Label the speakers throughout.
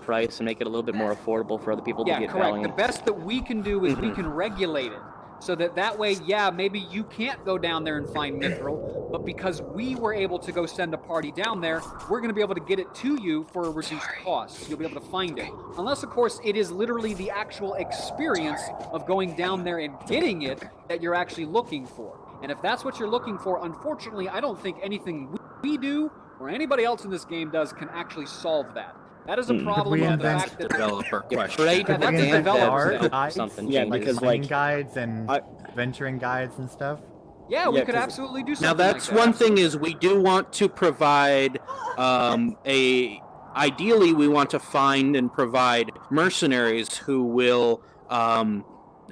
Speaker 1: price and make it a little bit more affordable for other people to
Speaker 2: Yeah,
Speaker 1: get
Speaker 2: correct.
Speaker 1: value.
Speaker 2: The best that we can do is we
Speaker 1: Mhm.
Speaker 2: can regulate it so that that way, yeah, maybe you can't go down there and find mithril, but because we were able to go send a party down there, we're going to be able to get it to you for a reduced cost. You'll be able to find it. Unless, of course, it is literally the actual experience of going down there and getting it that you're actually looking for. And if that's what you're looking for, unfortunately, I don't think anything we- we do or anybody else in this game does can actually solve that. That is a
Speaker 1: Hmm. Could
Speaker 2: problem
Speaker 3: we
Speaker 2: of the
Speaker 3: invent-
Speaker 2: fact that
Speaker 4: Developer
Speaker 1: Yeah,
Speaker 4: question.
Speaker 1: trade
Speaker 2: Yeah,
Speaker 1: with
Speaker 2: that's
Speaker 1: Dan
Speaker 2: developed.
Speaker 1: Feld,
Speaker 3: Art,
Speaker 1: something
Speaker 3: I-
Speaker 1: changes.
Speaker 3: yeah,
Speaker 1: Yeah,
Speaker 3: like
Speaker 1: because
Speaker 3: hunting
Speaker 1: like
Speaker 3: guides and
Speaker 5: I-
Speaker 3: venturing guides and stuff.
Speaker 2: Yeah, we
Speaker 5: Yeah,
Speaker 2: could
Speaker 5: 'cause-
Speaker 2: absolutely do something.
Speaker 4: Now that's
Speaker 2: like that.
Speaker 4: one thing is we do want to provide um, a ideally we want to find and provide mercenaries who will um,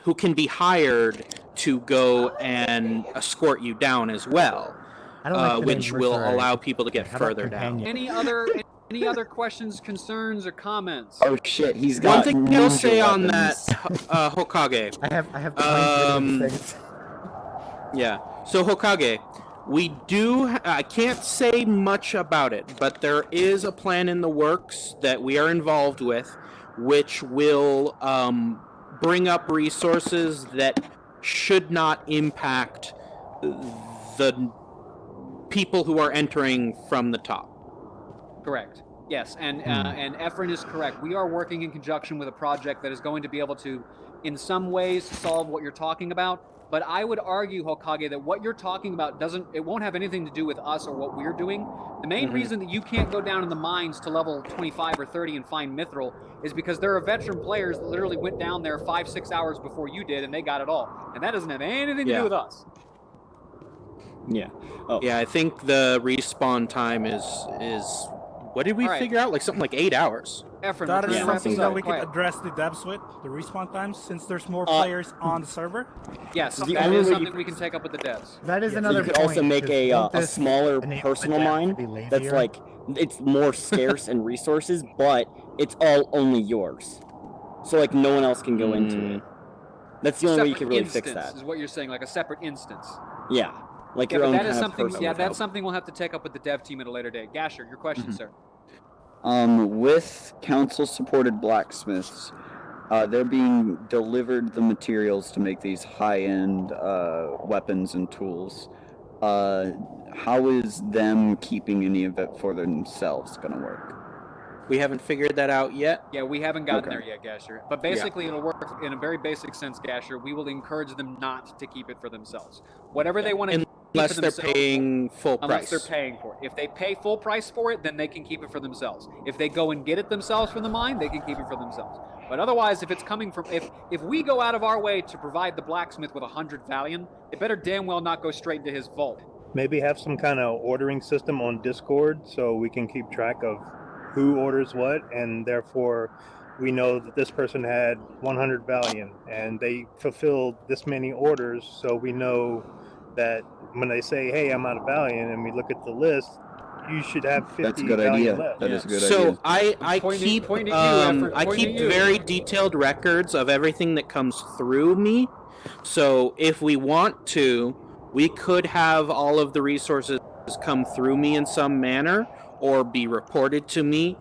Speaker 4: who can be hired to go and escort you down as well,
Speaker 3: I don't like
Speaker 4: uh,
Speaker 3: the name
Speaker 4: which will
Speaker 3: mercenary.
Speaker 4: allow people to get
Speaker 3: How about
Speaker 4: further down.
Speaker 3: companion?
Speaker 2: Any other any other questions, concerns, or comments?
Speaker 5: Oh shit, he's
Speaker 4: One
Speaker 5: got.
Speaker 4: thing I'll
Speaker 5: ninja
Speaker 4: say on that,
Speaker 5: weapons.
Speaker 4: uh, Hokage,
Speaker 3: I have I have
Speaker 4: Um,
Speaker 3: plans for these things.
Speaker 4: Yeah. So Hokage, we do. I can't say much about it, but there is a plan in the works that we are involved with, which will um, bring up resources that should not impact the people who are entering from the top.
Speaker 2: Correct. Yes, and uh, and Efren is correct. We are working in conjunction with a project that is going to be able to, in some ways, solve what you're talking about. But I would argue, Hokage, that what you're talking about doesn't it won't have anything to do with us or what we're doing. The main
Speaker 1: Mhm.
Speaker 2: reason that you can't go down in the mines to level 25 or 30 and find Mithril is because there are veteran players that literally went down there five, six hours before you did, and they got it all. And that doesn't have anything to
Speaker 4: Yeah.
Speaker 2: do with us.
Speaker 5: Yeah.
Speaker 4: Yeah, I think the respawn time is is what did we
Speaker 2: All right.
Speaker 4: figure out? Like something like eight hours.
Speaker 2: Efren,
Speaker 6: That
Speaker 2: we're gonna
Speaker 6: is
Speaker 2: wrap
Speaker 6: something
Speaker 2: this
Speaker 6: that
Speaker 2: up.
Speaker 6: we
Speaker 2: Quiet.
Speaker 6: can address the devs with, the respawn times, since there's more
Speaker 5: Uh,
Speaker 6: players on the server.
Speaker 2: Yes,
Speaker 5: The
Speaker 2: that
Speaker 5: only
Speaker 2: is
Speaker 5: way you
Speaker 2: something we can take up with the devs.
Speaker 3: That is
Speaker 5: So
Speaker 3: another.
Speaker 5: you could
Speaker 3: point,
Speaker 5: also make
Speaker 3: is
Speaker 5: a,
Speaker 3: don't
Speaker 5: uh, a
Speaker 3: this
Speaker 5: smaller
Speaker 3: enable
Speaker 5: personal
Speaker 3: them to
Speaker 5: mine
Speaker 3: be
Speaker 5: that's
Speaker 3: lazier?
Speaker 5: like it's more scarce in resources, but it's all only yours. So like no one else can go into it. That's the only way you can really fix
Speaker 2: Hmm. instance
Speaker 5: that.
Speaker 2: is what you're saying, like a separate instance.
Speaker 5: Yeah, like
Speaker 2: Yeah, but
Speaker 5: your own
Speaker 2: that
Speaker 5: kind
Speaker 2: is
Speaker 5: of
Speaker 2: something.
Speaker 5: personal
Speaker 2: Yeah,
Speaker 5: development.
Speaker 2: that's something we'll have to take up with the dev team at a later date. Gasher, your question,
Speaker 5: Mm-hmm.
Speaker 2: sir.
Speaker 5: Um, with council supported blacksmiths, uh, they're being delivered the materials to make these high end uh, weapons and tools. Uh, how is them keeping any of it for themselves going to work?
Speaker 4: We haven't figured that out yet.
Speaker 2: Yeah, we haven't gotten
Speaker 5: Okay.
Speaker 2: there yet, Gasher. But basically, it'll work in a very basic sense, Gasher. We will encourage them not to keep it for themselves. Whatever they want to keep for
Speaker 4: Unless they're
Speaker 2: themselves-
Speaker 4: paying full
Speaker 2: Unless
Speaker 4: price.
Speaker 2: they're paying for it. If they pay full price for it, then they can keep it for themselves. If they go and get it themselves from the mine, they can keep it for themselves. But otherwise, if it's coming from if if we go out of our way to provide the blacksmith with a hundred valium, it better damn well not go straight into his vault.
Speaker 7: Maybe have some kind of ordering system on Discord so we can keep track of who orders what, and therefore we know that this person had 100 Valium and they fulfilled this many orders. So we know that when they say, "Hey, I'm out of Valium," and we look at the list, you should have 50
Speaker 5: That's a good
Speaker 7: Valium
Speaker 5: idea.
Speaker 7: left.
Speaker 5: That is a good
Speaker 4: so
Speaker 5: idea.
Speaker 4: I I
Speaker 2: Point at-
Speaker 4: keep
Speaker 2: point at you,
Speaker 4: um,
Speaker 2: Efren,
Speaker 4: I
Speaker 2: point
Speaker 4: keep
Speaker 2: at you.
Speaker 4: very detailed records of everything that comes through me. So if we want to, we could have all of the resources come through me in some manner or be reported to me.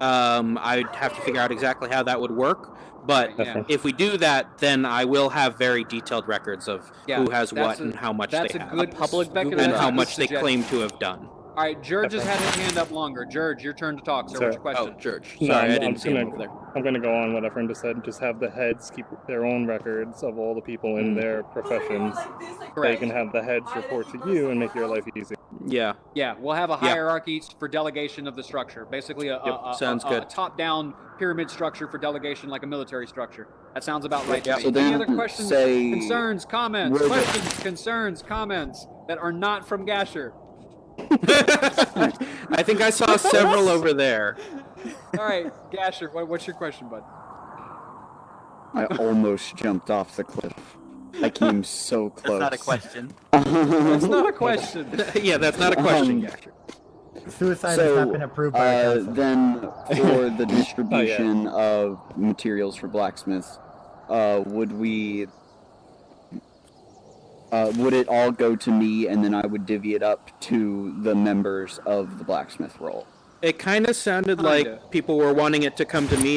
Speaker 4: Um, I'd have to figure out exactly how that would work. But
Speaker 2: Yeah.
Speaker 4: if we do that, then I will have very detailed records of
Speaker 2: Yeah,
Speaker 4: who has
Speaker 2: that's
Speaker 4: what
Speaker 2: a-
Speaker 4: and how much
Speaker 2: that's
Speaker 4: they
Speaker 2: a
Speaker 4: have
Speaker 2: good public
Speaker 4: and how
Speaker 2: good
Speaker 4: much they
Speaker 2: suggestion.
Speaker 4: claim to have done.
Speaker 2: All right, George has had his hand up longer. George, your turn to talk, sir. What's your
Speaker 4: Oh,
Speaker 2: question?
Speaker 4: George.
Speaker 7: No,
Speaker 4: Sorry,
Speaker 7: I'm-
Speaker 4: I
Speaker 7: I'm
Speaker 4: didn't see him
Speaker 7: gonna-
Speaker 4: over there.
Speaker 7: I'm going to go on what Efren just said. Just have the heads keep their own records of all the people in their professions.
Speaker 4: Oh,
Speaker 7: They
Speaker 2: Correct.
Speaker 7: can have the heads report to you and make your life easy.
Speaker 4: Yeah.
Speaker 2: Yeah, we'll have a
Speaker 4: Yeah.
Speaker 2: hierarchy for delegation of the structure. Basically, a, a-
Speaker 4: Yep,
Speaker 2: a-
Speaker 4: sounds
Speaker 2: a- a
Speaker 4: good.
Speaker 2: top-down pyramid structure for delegation, like a military structure. That sounds about right. to me.
Speaker 5: So
Speaker 2: Any
Speaker 5: then
Speaker 2: other questions,
Speaker 5: say-
Speaker 2: concerns, comments,
Speaker 5: Where the-
Speaker 2: questions, concerns, comments that are not from Gasher?
Speaker 4: I think I saw several over there.
Speaker 2: All right, Gasher, what, what's your question, bud?
Speaker 5: I almost jumped off the cliff. I came so
Speaker 8: That's
Speaker 5: close.
Speaker 8: not a question.
Speaker 2: That's not a question.
Speaker 4: yeah, that's not a question.
Speaker 5: Um,
Speaker 4: Gasher.
Speaker 3: Suicide has
Speaker 5: so,
Speaker 3: not been approved by our
Speaker 5: Uh,
Speaker 3: council. Oh,
Speaker 5: then for the distribution of materials for blacksmiths, uh, would we? Uh, would it all go to me, and then I would divvy it up to the members of the blacksmith role?
Speaker 4: It kind of sounded like people were wanting it to come to me